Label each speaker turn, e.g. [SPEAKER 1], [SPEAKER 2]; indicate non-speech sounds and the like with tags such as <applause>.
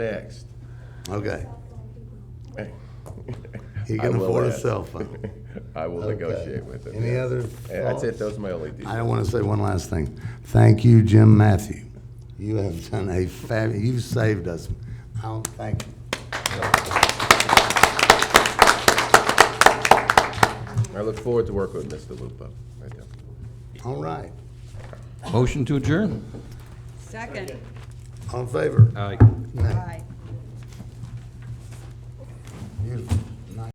[SPEAKER 1] Next.
[SPEAKER 2] Okay, he
[SPEAKER 1] I
[SPEAKER 2] can
[SPEAKER 1] will
[SPEAKER 2] afford a
[SPEAKER 1] add.
[SPEAKER 2] cell phone.
[SPEAKER 1] <laughs> I will
[SPEAKER 2] Okay.
[SPEAKER 1] negotiate with him.
[SPEAKER 2] Any
[SPEAKER 1] yeah.
[SPEAKER 2] other
[SPEAKER 1] Yeah, That's it,
[SPEAKER 2] thoughts?
[SPEAKER 1] those are my only details.
[SPEAKER 2] I want to say one last thing. Thank you, Jim Matthew. You have done a fab, you've saved us. I don't thank you.
[SPEAKER 1] I look forward to working with Mr. Lupo. Right there.
[SPEAKER 2] All right,
[SPEAKER 3] Motion to adjourn.
[SPEAKER 4] Second.
[SPEAKER 2] all in favor?
[SPEAKER 3] Aye.
[SPEAKER 2] Nay.
[SPEAKER 4] Aye.
[SPEAKER 2] Beautiful.